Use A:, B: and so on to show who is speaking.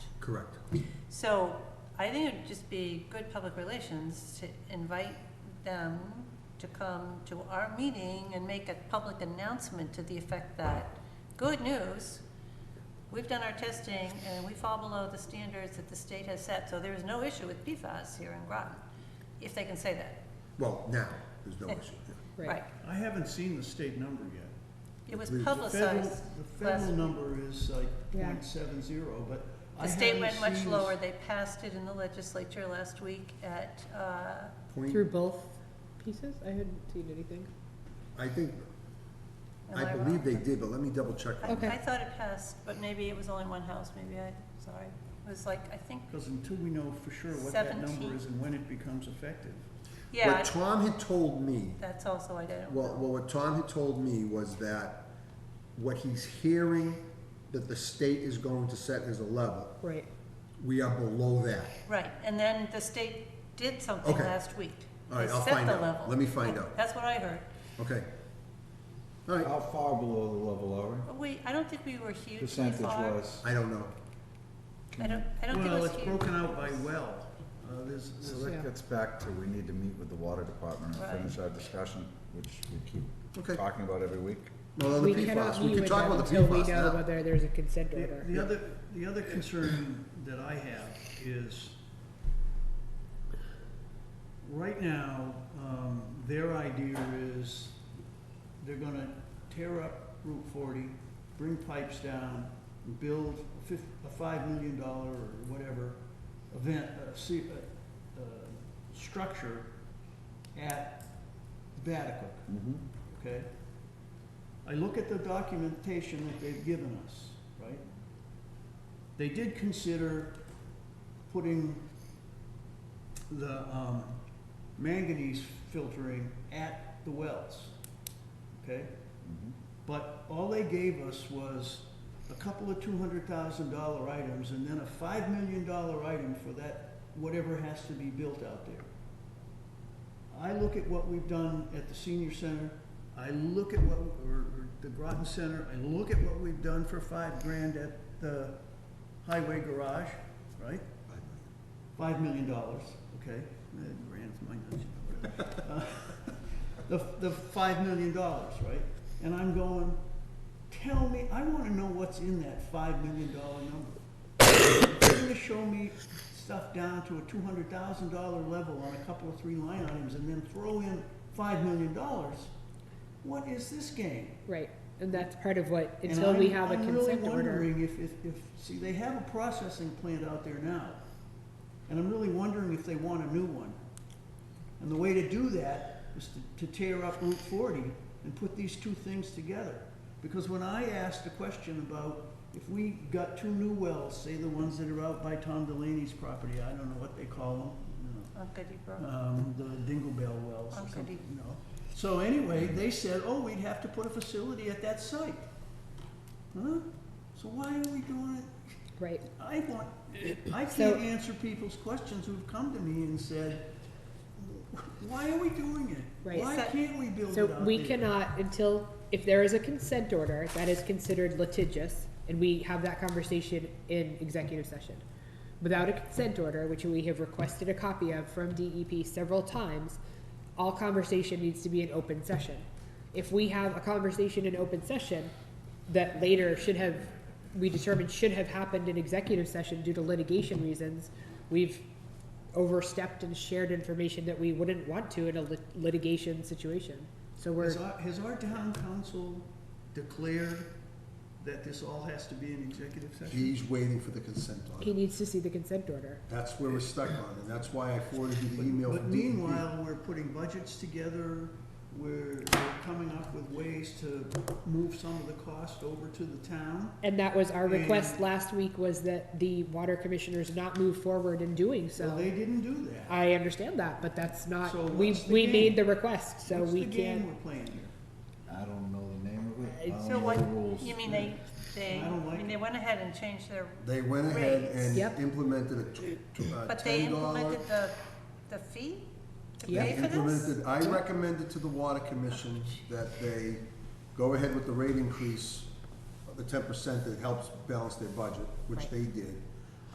A: Correct.
B: So I think it'd just be good public relations to invite them to come to our meeting and make a public announcement to the effect that, good news, we've done our testing and we fall below the standards that the state has set, so there is no issue with PFAS here in Groton, if they can say that.
A: Well, now, there's
C: Eh.
A: no issue.
B: Right.
D: I haven't seen the state number yet.
B: It was
A: The
D: The federal-
B: publicized.
D: The
B: last-
D: federal number is uh, like
C: Yeah.
D: point seven zero, but I
B: The
D: haven't
B: state went much
D: seen the-
B: lower. They passed it in the legislature last week at, uh,
A: Point,
C: Through both pieces? I hadn't seen anything.
A: I think,
B: am
A: I
B: I wrong?
A: believe they did, but let me double check.
B: I,
C: Okay.
B: I thought it passed, but maybe it was only one house, maybe I, sorry. It was like, I think,
D: Because until we know for sure what that number is and when it becomes effective.
B: yeah,
A: What Tom had told me,
B: that's also, I don't
A: well, well, what Tom had told me was that what he's hearing that the state is going to set as a level,
C: Right.
A: we are below that.
B: Right, and then the state did something
A: Okay.
B: last week.
A: All right,
B: They
A: I'll
B: set
A: find
B: the
A: out.
B: level.
A: Let me find
B: Yeah,
A: out.
B: That's what I heard.
A: Okay. All right,
E: How far below the level are we?
B: But we, I don't think we were hugely
E: Percentage
B: far.
E: wise?
A: I don't know.
B: I don't, I don't think it
D: Well,
B: was
D: it's
B: huge.
D: broken out by well. Uh, There's,
E: So
D: there's-
C: Yeah.
E: that gets back to, we need to meet with the water department and
B: Right.
E: finish our discussion, which we keep
A: Okay.
E: talking about every week.
A: Well, the
C: We cannot
A: PFAS, we
C: meet
A: could
C: with
A: talk
C: them
A: about the
C: until we
A: PFAS
C: know
A: now.
C: whether there's a consent
D: the
C: order.
D: the other, the other concern that I have is, right now, um, their idea is they're gonna tear up Route forty, bring pipes down, and build a fif- a five million dollar or whatever event, uh, se- uh, uh, structure at Vatican.
E: Mm-hmm.
D: okay? I look at the documentation that they've given us, right? They did consider putting the um, manganese filtering at the wells, okay?
E: Mm-hmm.
D: But all they gave us was a couple of two hundred thousand dollar items and then a five million dollar item for that, whatever has to be built out there. I look at what we've done at the senior center, I look at what, or, or the Groton Center, I look at what we've done for five grand at the highway garage, right? Five million dollars, okay, Uh, grand's my nuts, you know, whatever. Uh, The, the five million dollars, right? And I'm going, tell me, I wanna know what's in that five million dollar number. You're gonna show me stuff down to a two hundred thousand dollar level on a couple of three line items and then throw in five million dollars? What is this game?
C: Right, and that's part of what,
D: And
C: until we
D: I'm-
C: have a consent
D: I'm really
C: order.
D: wondering if, if, if, see, they have a processing plant out there now, and I'm really wondering if they want a new one. And the way to do that is to, to tear up Route forty and put these two things together. Because when I asked the question about if we got two new wells, say the ones that are out by Tom Delaney's property, I don't know what they call them, you know,
B: Uncle Dee Brook.
D: um, the Dingle Bell wells or
B: Okay.
D: something, you know. So anyway, they said, oh, we'd have to put a facility at that site. Huh? So why are we doing it?
C: Right,
D: I want, I
C: So-
D: can't answer people's questions who've come to me and said, why are we doing it?
C: Right.
D: Why
B: So-
D: can't we build it
C: so
D: out
C: we
D: there?"
C: cannot, until, if there is a consent order that is considered litigious, and we have that conversation in executive session. Without a consent order, which we have requested a copy of from DEP several times, all conversation needs to be in open session. If we have a conversation in open session that later should have, we determined should have happened in executive session due to litigation reasons, we've overstepped and shared information that we wouldn't want to in a lit- litigation situation. So we're,
D: Has our, has our town council declared that this all has to be an executive session?
A: He's waiting for the consent order.
C: he needs to see the consent order.
A: That's where we're stuck on, and that's why I forwarded you the
D: But-
A: email
D: But
A: from E DEP.
D: meanwhile, we're putting budgets together, we're we're coming up with ways to move some of the cost over to the town.
C: And that was our request
D: And-
C: last week was that the water commissioners not move forward in doing
D: Well,
C: so.
D: they didn't do that.
C: I understand that, but that's not,
D: So
C: we,
D: what's the
C: we
D: game?
C: made the request, so
D: What's
C: we
D: the game
C: can't.
D: we're playing here?
E: I don't know the name of it. I don't
B: So
E: know
B: what,
E: the rules.
B: you mean they, they,
D: I don't
B: I
D: like
B: mean,
D: it.
B: they went ahead and changed their,
A: They went ahead and
C: Yep.
A: implemented a tw- tw- uh,
B: but they
A: ten dollar.
B: implemented the, the fee to
C: Yeah.
B: pay for this?
A: I recommended to the water commission that they go ahead with the rate increase of the ten percent that helps balance their budget, which
B: Right.
A: they did.